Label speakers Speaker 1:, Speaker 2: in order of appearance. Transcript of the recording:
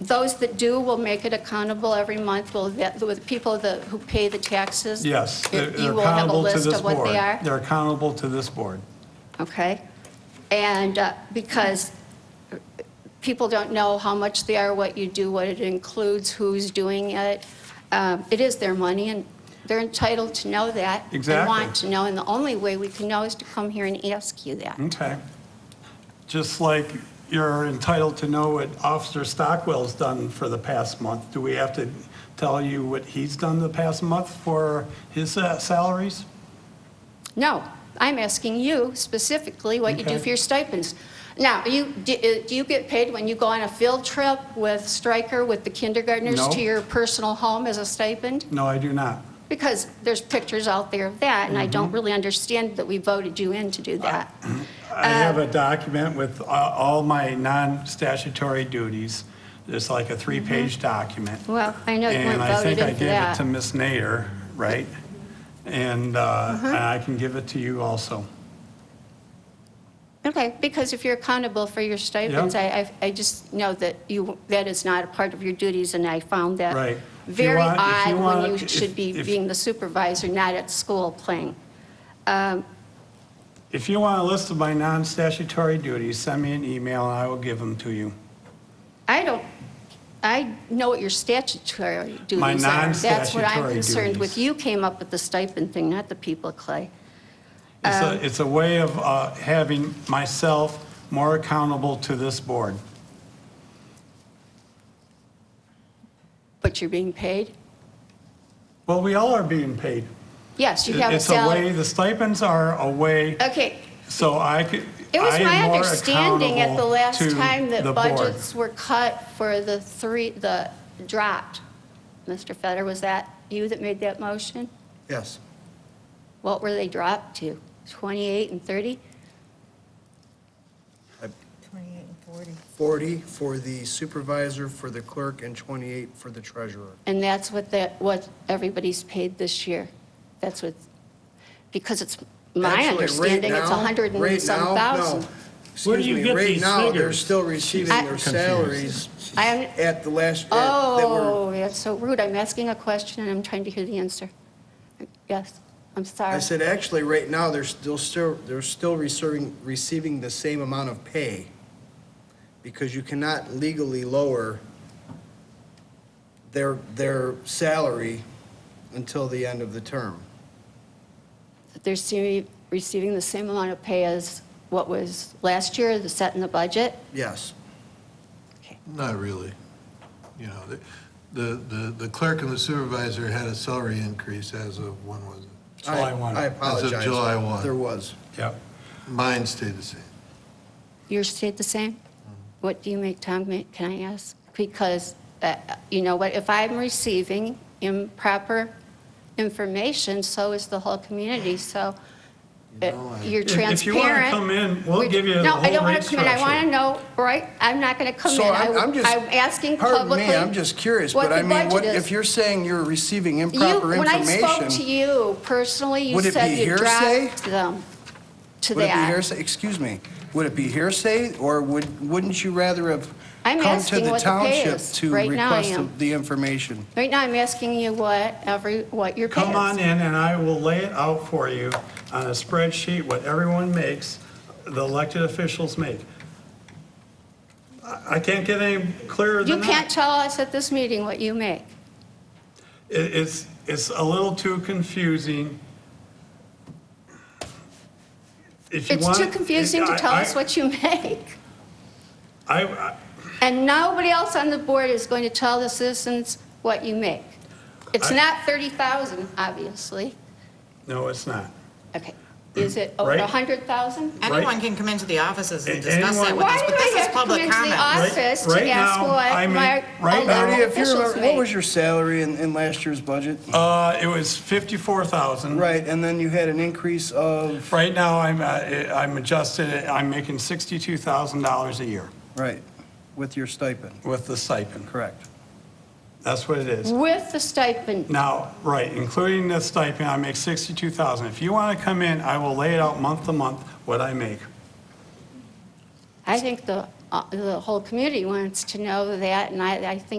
Speaker 1: Those that do will make it accountable every month, will, the the people that, who pay the taxes?
Speaker 2: Yes,
Speaker 1: you-
Speaker 2: they're they're
Speaker 1: You will have a
Speaker 2: accountable to
Speaker 1: list
Speaker 2: this
Speaker 1: of what
Speaker 2: board.
Speaker 1: they are?
Speaker 2: They're accountable to this board.
Speaker 1: Okay? And uh, because people don't know how much they are, what you do, what it includes, who's doing it. Um, It is their money, and they're entitled to know that.
Speaker 2: Exactly.
Speaker 1: And want to know, and the only way we can know is to come here and ask you that.
Speaker 2: Okay. Just like you're entitled to know what Officer Stockwell's done for the past month, do we have to tell you what he's done the past month for his uh, salaries?
Speaker 1: No, I'm asking you specifically what you do
Speaker 2: Okay.
Speaker 1: for your stipends. Now, you, do uh, do you get paid when you go on a field trip with Stryker, with the kindergartners,
Speaker 2: No.
Speaker 1: to your personal home as a stipend?
Speaker 2: No, I do not.
Speaker 1: Because there's pictures out there of that, and I
Speaker 2: Mm-hmm.
Speaker 1: don't really understand that we voted you in to do
Speaker 2: Uh,
Speaker 1: that.
Speaker 2: I have
Speaker 1: Um,
Speaker 2: a document with a- all my non-statutory duties. It's like a three-page document.
Speaker 1: Mm-hmm. Well, I know you
Speaker 2: And
Speaker 1: weren't
Speaker 2: I
Speaker 1: voted
Speaker 2: think I
Speaker 1: in for
Speaker 2: gave
Speaker 1: that.
Speaker 2: it to Ms. Nader, right? And uh, and
Speaker 1: Uh-huh.
Speaker 2: I can give it to you also.
Speaker 1: Okay, because if you're accountable for your stipends, I, I- I just know that you, that is not a part of your duties, and I found that
Speaker 2: Right. If you
Speaker 1: very
Speaker 2: want- if you
Speaker 1: odd
Speaker 2: want-
Speaker 1: when you
Speaker 2: if-
Speaker 1: should be
Speaker 2: if-
Speaker 1: being the supervisor, not at school playing.
Speaker 2: If you want a list of my non-statutory duties, send me an email and I will give them to you.
Speaker 1: I don't, I know what your statutory duties are.
Speaker 2: My
Speaker 1: That's what I'm
Speaker 2: non-statutory
Speaker 1: concerned with.
Speaker 2: duties.
Speaker 1: You came up with the stipend thing, not the people, Clay.
Speaker 2: It's
Speaker 1: Um,
Speaker 2: a, it's a way of uh, having myself more accountable to this board.
Speaker 1: But you're being paid?
Speaker 2: Well, we all are being paid.
Speaker 1: Yes, you have a
Speaker 2: It's a way,
Speaker 1: salary.
Speaker 2: the stipends are a way
Speaker 1: Okay,
Speaker 2: So I could,
Speaker 1: it was
Speaker 2: I
Speaker 1: my
Speaker 2: am more
Speaker 1: understanding at the
Speaker 2: accountable
Speaker 1: last
Speaker 2: to
Speaker 1: time that
Speaker 2: the board.
Speaker 1: budgets were cut for the three, the dropped. Mr. Feder, was that you that made that motion?
Speaker 3: Yes.
Speaker 1: What were they dropped to? 28 and 30?
Speaker 4: 28 and 40.
Speaker 3: 40 for the supervisor, for the clerk, and 28 for the treasurer.
Speaker 1: And that's what that, what everybody's paid this year. That's what, because it's my
Speaker 3: Actually, right
Speaker 1: understanding, it's a
Speaker 3: now-
Speaker 1: 100 and
Speaker 3: right now,
Speaker 1: some
Speaker 3: no.
Speaker 1: thousand.
Speaker 5: Where do
Speaker 3: Excuse
Speaker 5: you
Speaker 3: me,
Speaker 5: get
Speaker 3: right
Speaker 5: these
Speaker 3: now, they're
Speaker 5: figures?
Speaker 3: still receiving
Speaker 1: I-
Speaker 3: their salaries
Speaker 1: I am-
Speaker 3: at the last, at- that were,
Speaker 1: Oh, that's so rude. I'm asking a question and I'm trying to hear the answer. Yes, I'm
Speaker 3: I
Speaker 1: sorry.
Speaker 3: said, actually, right now, they're still, still- they're still receiving, receiving the same amount of pay because you cannot legally lower their, their salary until the end of the term.
Speaker 1: They're se- receiving the same amount of pay as what was last year, the set in the budget.
Speaker 3: Yes.
Speaker 6: Not really. You know, the- the, the the clerk and the supervisor had a salary increase as of, when was it?
Speaker 2: July 1.
Speaker 3: I
Speaker 2: As of
Speaker 3: apologize.
Speaker 6: July 1.
Speaker 3: There was.
Speaker 2: Yep.
Speaker 6: Mine stayed the same.
Speaker 1: Yours stayed the same? What do you make, Tom, ma- can I ask? Because, uh, you know what, if I'm receiving improper information, so is the whole community, so uh, you're
Speaker 2: If-
Speaker 1: transparent.
Speaker 2: if you wanna come in, we'll
Speaker 1: We-
Speaker 2: give you the
Speaker 1: No, I
Speaker 2: whole
Speaker 1: don't want
Speaker 2: rate
Speaker 1: to come in, I want to
Speaker 2: structure.
Speaker 1: know, right, I'm not going to come in.
Speaker 3: So I'm,
Speaker 1: I-
Speaker 3: I'm just.
Speaker 1: I'm asking
Speaker 3: Pardon
Speaker 1: publicly.
Speaker 3: me, I'm just curious, but I mean, what, if you're saying you're receiving improper
Speaker 1: When I spoke to
Speaker 3: information.
Speaker 1: you personally, you
Speaker 3: Would it
Speaker 1: said
Speaker 3: be
Speaker 1: you
Speaker 3: hearsay?
Speaker 1: dropped them to that.
Speaker 3: Would it be hearsay, excuse me, would it be hearsay, or would, wouldn't you rather have
Speaker 1: I'm
Speaker 3: come to
Speaker 1: asking
Speaker 3: the
Speaker 1: what the pay
Speaker 3: township
Speaker 1: is.
Speaker 3: to
Speaker 1: Right now I
Speaker 3: request
Speaker 1: am.
Speaker 3: the information?
Speaker 1: Right now, I'm asking you what every, what your pay is.
Speaker 2: Come on in and I will lay it out for you on a spreadsheet, what everyone makes, the elected officials make. I I can't get any clearer
Speaker 1: You
Speaker 2: than that.
Speaker 1: can't tell us at this meeting what you make.
Speaker 2: It- It's, it's a little too confusing. If you
Speaker 1: It's
Speaker 2: want-
Speaker 1: too confusing to
Speaker 2: I-
Speaker 1: tell us
Speaker 2: I-
Speaker 1: what you make.
Speaker 2: I, I-
Speaker 1: And nobody else on the board is going to tell the citizens what you make. It's
Speaker 2: I-
Speaker 1: not 30,000, obviously.
Speaker 2: no, it's not.
Speaker 1: Okay. Is it over
Speaker 2: Right.
Speaker 1: 100,000?
Speaker 4: Anyone can come into the offices
Speaker 2: A-
Speaker 4: and discuss that
Speaker 2: anyone-
Speaker 4: with
Speaker 1: Why
Speaker 4: us,
Speaker 1: do
Speaker 4: but this
Speaker 1: I
Speaker 4: is
Speaker 1: have to come
Speaker 4: public
Speaker 1: into the
Speaker 4: comment.
Speaker 1: office
Speaker 2: Right-
Speaker 1: to
Speaker 2: right
Speaker 1: ask
Speaker 2: now, I
Speaker 1: what
Speaker 2: make-
Speaker 1: my
Speaker 2: right now-
Speaker 1: elected
Speaker 3: Marty, if you
Speaker 1: officials
Speaker 3: remember, what was
Speaker 1: make?
Speaker 3: your salary in, in last year's budget?
Speaker 2: Uh, it was 54,000.
Speaker 3: Right, and then you had an increase of,
Speaker 2: Right now, I'm, uh, I'm adjusted, I'm making $62,000 a year
Speaker 3: right, with your stipend,
Speaker 2: with the stipend.
Speaker 3: correct.
Speaker 2: That's what it is.
Speaker 1: With the stipend.
Speaker 2: Now, right, including the stipend, I make 62,000. If you want to come in, I will lay it out month to month what I make.
Speaker 1: I think the uh, the whole community wants to know that, and I, I think